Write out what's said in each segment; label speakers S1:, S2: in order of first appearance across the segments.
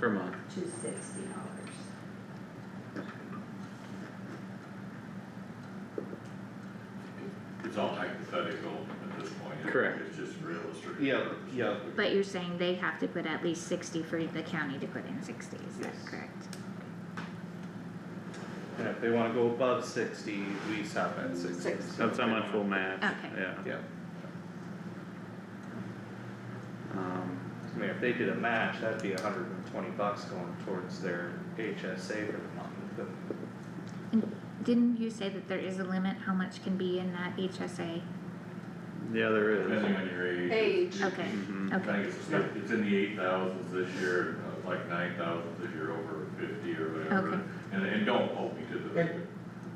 S1: per month.
S2: to sixty dollars.
S3: It's all hypothetical at this point. It-
S1: Correct.
S3: It's just real estate.
S4: Yeah, yeah.
S5: But you're saying they have to put at least sixty for the county to put in sixty, is that
S4: Yes.
S5: correct?
S4: And if they wanna go above sixty, we stop at sixty.
S2: Sixty.
S1: That's how much we'll match,
S5: Okay.
S1: yeah.
S4: Yeah,
S5: Oh.
S1: Um,
S4: I mean, if they did a match, that'd be hundred and twenty bucks going towards their HSA for the month, but
S5: Didn't you say that there is a limit how much can be in that HSA?
S1: yeah, there is.
S3: Depending on your age.
S2: Age.
S5: Okay,
S1: Mhm.
S3: I
S5: okay,
S3: think it's, it's in the eight thousands this year, uh, like nine thousands if you're over fifty or
S5: Okay.
S3: whatever. And, and don't hold me to the.
S6: And-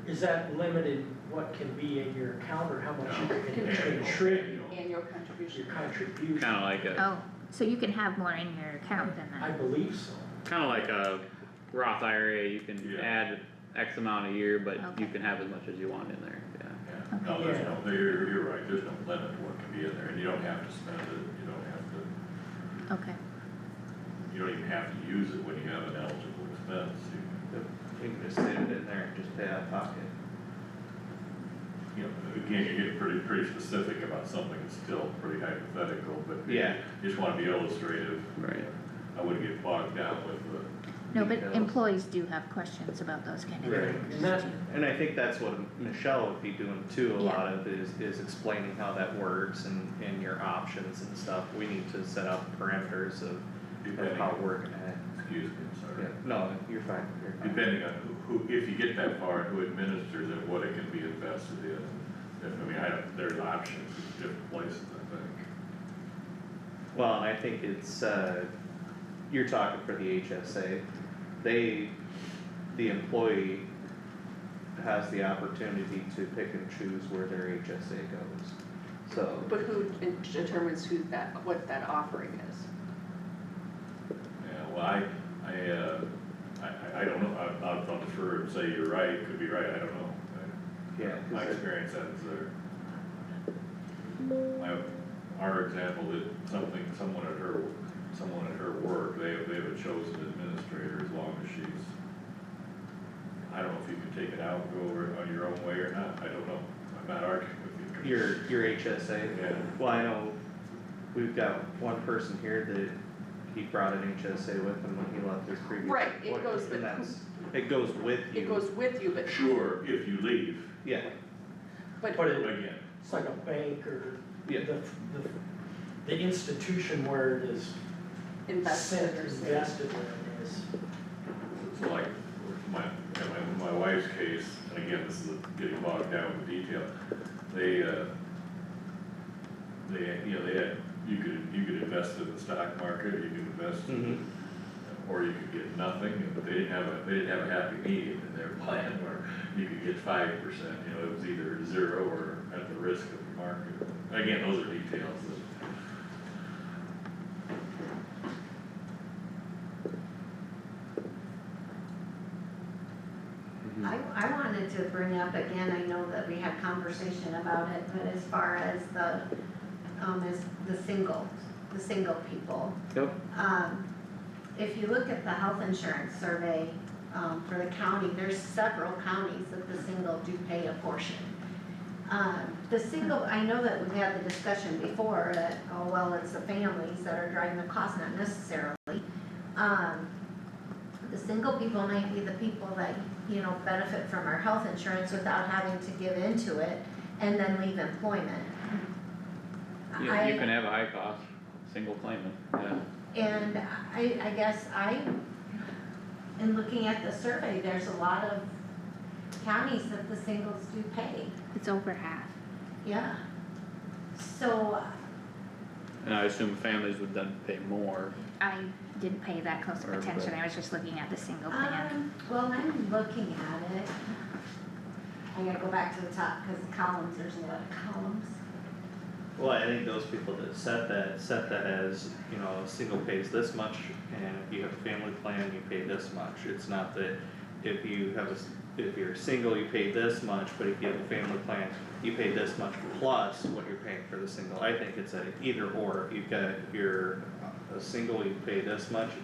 S6: Is that limited what can be in your account or how much you can
S3: annual-
S6: contribute
S3: annual.
S2: Annual
S6: your
S2: contribution.
S6: contribution?
S1: Kinda like a,
S5: oh, so you can have more in your account than
S6: I
S5: that,
S6: believe so.
S1: kinda like a Roth IRA, you can
S3: Yeah.
S1: add X amount a year, but you
S5: Okay.
S1: can have as much as you want in there, yeah.
S3: Yeah, no, there's no, you're, you're right, there's no limit to what can be in there, and you don't have to spend it, you don't have to,
S5: okay,
S3: you don't even have to use it when you have an eligible expense. You-
S4: we can just leave it in there and just pay out of pocket.
S3: You know, again, you're getting pretty, pretty specific about something that's still pretty hypothetical, but.
S4: Yeah.
S3: You just wanna be illustrative,
S1: Right.
S3: I wouldn't get bogged down with the,
S5: no, but
S4: Details.
S5: employees do have questions about those kind of
S4: Right.
S5: things.
S6: And that-
S5: too.
S4: And I think that's what Michelle would be doing too, a lot of is, is explaining how that works and, and your options and stuff, we need to set up parameters of, of
S3: depending
S4: how
S3: on,
S4: we're gonna,
S3: excuse me, I'm sorry.
S4: yeah, no, you're fine, you're fine.
S3: Depending on who, who- if you get that far, who administers it, what it can be invested in. If- I mean, I don't, there's options in different places, I think.
S4: Well, and I think it's, uh, you're talking for the HSA, they, the employee has the opportunity to pick and choose where their HSA goes, so.
S2: But who determines who that, what that offering is?
S3: Yeah, well, I, I, uh, I- I, I don't know, I, I'll I'll defer and say you're right, could be right, I don't know.
S4: Yeah, 'cause
S3: I- My
S4: it-
S3: experience ends there. I, our example, that something, someone at her, someone at her work, they have, they have a chosen administrator as long as she's. I don't know if you can take it out, go over it on your own way or not, I don't know, I'm not arguing with you.
S4: your, your HSA.
S3: Yeah.
S4: Well, I know, we've got one person here that he brought an HSA with him when he left his previous.
S2: Right, it
S4: employer,
S2: goes with
S4: And
S2: who-
S4: that's, it goes with you.
S2: It goes with you, but,
S3: Sure, if you leave,
S4: Yeah,
S6: But
S2: but,
S6: it-
S3: again,
S6: it's like a bank or the,
S4: yeah,
S6: the, the institution where it is
S2: invested
S6: sent,
S2: or saved.
S6: invested where it is.
S3: So like, my, in my, in my wife's case, and again, this is getting bogged down with detail, they, uh, they, you know, they had, you could, you could invest in the stock market, or you could invest,
S4: mhm,
S3: or you could get nothing, but they didn't have a, they didn't have a happy medium in their plan where you could get five percent, you know, it was either zero or at the risk of the market. Again, those are details that,
S7: I, I wanted to bring up again, I know that we had conversation about it, but as far as the, um, as the single, the single people.
S1: Yep.
S7: Um, if you look at the health insurance survey, um, for the county, there's several counties that the single do pay a portion. Um, the single, I know that we've had the discussion before that, oh, well, it's the families that are driving the cost, not necessarily. Um, the single people might be the people that, you know, benefit from our health insurance without having to give into it and then leave employment.
S1: You, you can have a high cost, single claimant, yeah.
S7: And I, I guess I, in looking at the survey, there's a lot of counties that the singles do pay,
S5: It's over half,
S7: yeah. So,
S1: And I assume families would then pay more,
S5: I didn't pay that close of
S1: Or
S5: attention,
S1: the-
S5: I was just looking at the single plan.
S7: um, well, I'm looking at it. I gotta go back to the top, cause the columns, there's a lot of columns.
S4: well, I think those people that set that, set that as, you know, single pays this much, and if you have a family plan, you pay this much, it's not that if you have a, s- if you're single, you pay this much, but if you have a family plan, you pay this much plus what you're paying for the single, I think it's a either or, if you've got, if you're a single, you pay this much,